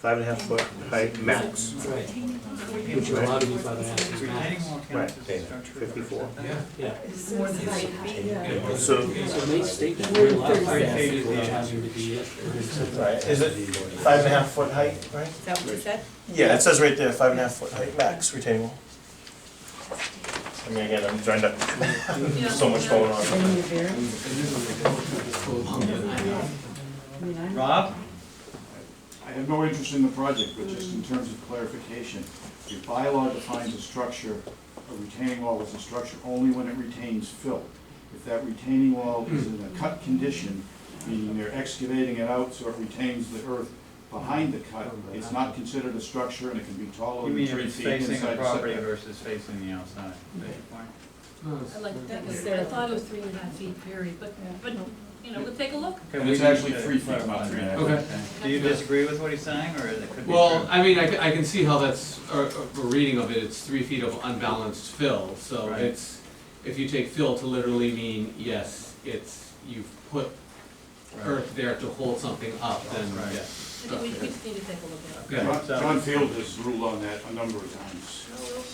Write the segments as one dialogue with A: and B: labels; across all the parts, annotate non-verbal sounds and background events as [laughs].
A: Five and a half foot height max,
B: Right,
C: Retaining
B: which
C: wall.
B: you're allowed to be five and a half inches
D: Retaining
B: max.
D: wall counts
A: Right,
D: as a
A: yeah,
D: structure.
A: 54.
B: Yeah, yeah.
C: It's more than eight feet.
A: so,
B: So they state that we're allowed five and a half feet, which happened to be it.
E: Right, is it five and a half foot height, right?
C: Is that what you said?
E: Yeah, it says right there, five and a half foot height max retaining wall. I mean, again, I'm trying to, [laughs] so much going on.
D: Rob?
F: I have no interest in the project, but just in terms of clarification, your bylaw defines a structure, a retaining wall as a structure only when it retains fill. If that retaining wall is in a cut condition, meaning they're excavating it out so it retains the earth behind the cut, it's not considered a structure and it can be taller
D: You
F: than
D: mean
F: three
D: it's
F: feet
D: facing the
F: inside
D: property
F: setback.
D: versus facing the outside?
C: I like, that was, I thought it was three and a half feet period, but, but, you know, we'll take a look.
D: Okay,
F: And
D: we
F: it's
D: need
F: actually
D: to
F: three feet, not
D: clarify
F: three
D: that.
F: and
G: a half.
D: Do you disagree with what he's saying, or it could be true?
G: Well, I mean, I, c- I can see how that's, a, a reading of it, it's three feet of unbalanced fill, so
D: Right.
G: it's, if you take fill to literally mean, yes, it's, you've put
D: Right.
G: earth there to hold something up, then,
D: Right.
G: yes.
C: I think we, we just need to take a look at it.
G: Okay.
F: John John Field has ruled on that a number of times.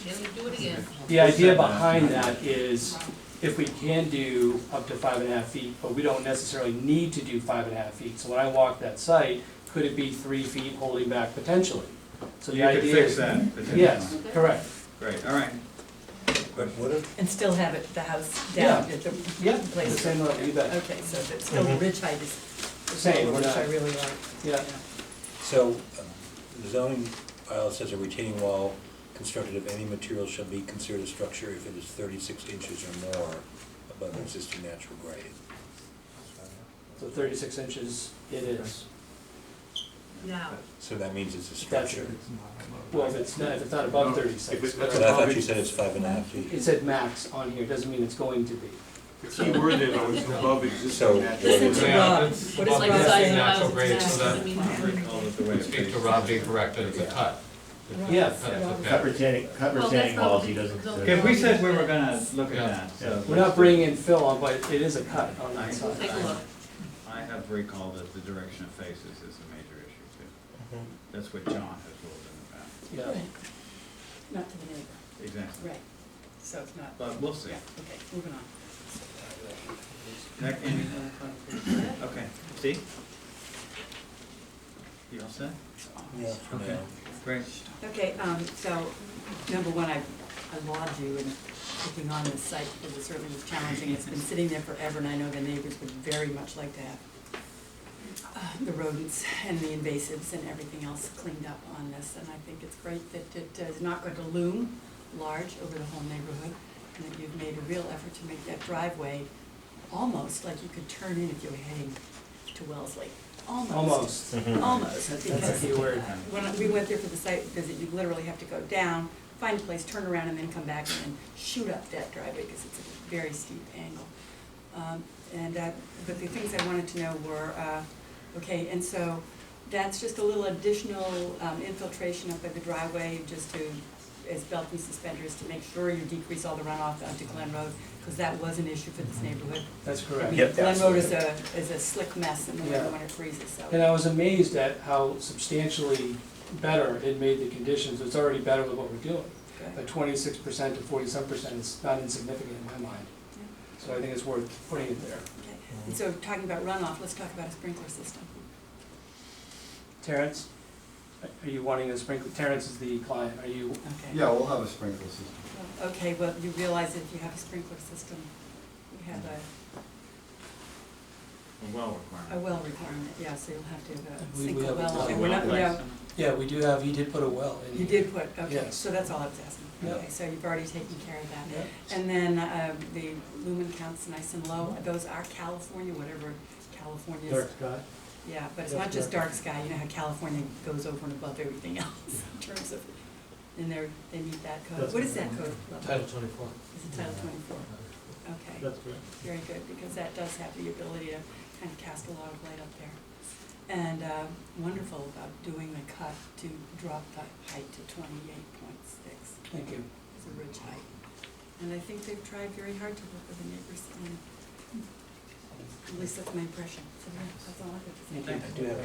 C: Yeah, we do it again.
B: The idea behind that is if we can do up to five and a half feet, but we don't necessarily need to do five and a half feet. So when I walk that site, could it be three feet holding back potentially? So the
D: You could
B: idea
D: fix
B: is.
D: that potentially.
B: Yes, correct.
D: Great, all right.
E: But what if?
H: And still have it, the house down at the
B: Yeah, the
H: place.
B: same level, you bet.
H: Okay, so that's still the ridge height is.
B: Same, we're
H: Which
B: not-
H: I really like.
B: Yeah,
I: So, uh, the zoning bylaw says a retaining wall constructed of any material shall be considered a structure if it is thirty-six inches or more above the existing natural grade.
B: so thirty-six inches it is.
C: Now,
I: So that means it's a
B: That's
I: structure.
B: Well, if it's not, if it's not above thirty-six.
F: If it-
I: But I thought you said it's five and a half feet.
B: It said max on here, doesn't mean it's going to be.
F: The key word there though is above
I: So-
F: existing
H: Listen to
F: natural.
H: Yeah, Rob. What is
C: like
H: Rob
C: the size of
H: saying?
C: the house,
H: Natural
C: it's
H: so
C: max, I
H: that-
C: mean,
D: Speak
G: correct,
D: it's a
G: cut.
B: Yes.
H: Rob.
E: retaining, cut
C: Well, that's retaining not- walls, he doesn't consider-
D: If we said we were gonna look at
G: Yeah.
D: that, so.
B: We're not bringing in fill on, but it is a cut on that
C: We'll
B: side.
C: take a look.
D: I have recalled that the direction of faces is a major issue too. That's what John has ruled
B: Yeah.
H: Right. Not to the neighbor,
D: in the past. Exactly.
H: right. So it's not,
D: But we'll see.
H: yeah, okay, moving on.
D: Nick, any other clarification? Okay, see? You all set?
I: Yeah, for
D: Okay.
I: now.
D: Great.
H: Okay, um, so, number one, I, I laud you in taking on this site, because it certainly was challenging, it's been sitting there forever, and I know the neighbors would very much like to have uh, the rodents and the invasives and everything else cleaned up on this, and I think it's great that it is not going to loom large over the whole neighborhood, and that you've made a real effort to make that driveway almost like you could turn in if you were heading to Wellesley, almost.
B: Almost.
E: Mm-hmm.
H: Almost, because
B: That's a key word.
H: when we went there for the site visit, you literally have to go down, find a place, turn around, and then come back and then shoot up that driveway, because it's a very steep angle. Um, And, uh, but the things I wanted to know were, uh, okay, and so that's just a little additional um, infiltration up by the driveway, just to, as belt and suspenders, to make sure you decrease all the runoff onto Glen Road, because that was an issue for this neighborhood.
B: That's
H: I
B: correct.
H: mean,
E: Yep,
H: Glen Road is a,
E: absolutely.
H: is a slick mess in the
B: Yeah.
H: winter when it freezes, so.
B: And I was amazed at how substantially better it made the conditions, it's already better with what we're doing.
H: okay.
B: But twenty-six percent to forty-seven percent is not insignificant in my mind.
H: Yeah.
B: So I think it's worth putting it there.
H: Okay, and so talking about runoff, let's talk about a sprinkler system.
B: Terrence, are you wanting a sprinkler, Terrence is the client, are you,
H: Okay.
J: Yeah, we'll have a sprinkler system.
H: Okay, well, you realize if you have a sprinkler system, you have a,
D: A Well
H: a
D: requirement.
H: well requirement, yeah, so you'll have to have a
C: We-
H: sink
C: we
H: a
C: have a
H: well.
C: well
H: and we're not-
D: Place.
H: no,
C: Yeah, we do have, he did put a well in.
H: You did put, okay,
C: Yes.
H: so that's all I was asking.
C: Yeah.
H: Okay, so you've already taken care of that.
C: Yeah.
H: And then uh, the lumen counts nice and low, those are California, whatever California's.
J: sky?
H: Yeah, but it's not just dark sky, you know how California goes over and above everything [laughs] else in terms of, and they're, they meet that code. What is that code level?
C: Title twenty-four.
H: Is it Title twenty-four? Okay. That's correct. Very good, because that does have the ability to kind of cast a lot of light up there. And uh, wonderful about doing the cut to drop the height to twenty-eight point six
B: thank you.
H: as a ridge height. And I think they've tried very hard to work with the neighbors, and at least that's my impression. So yeah, that's all I have to say.
B: Thank you. I do have a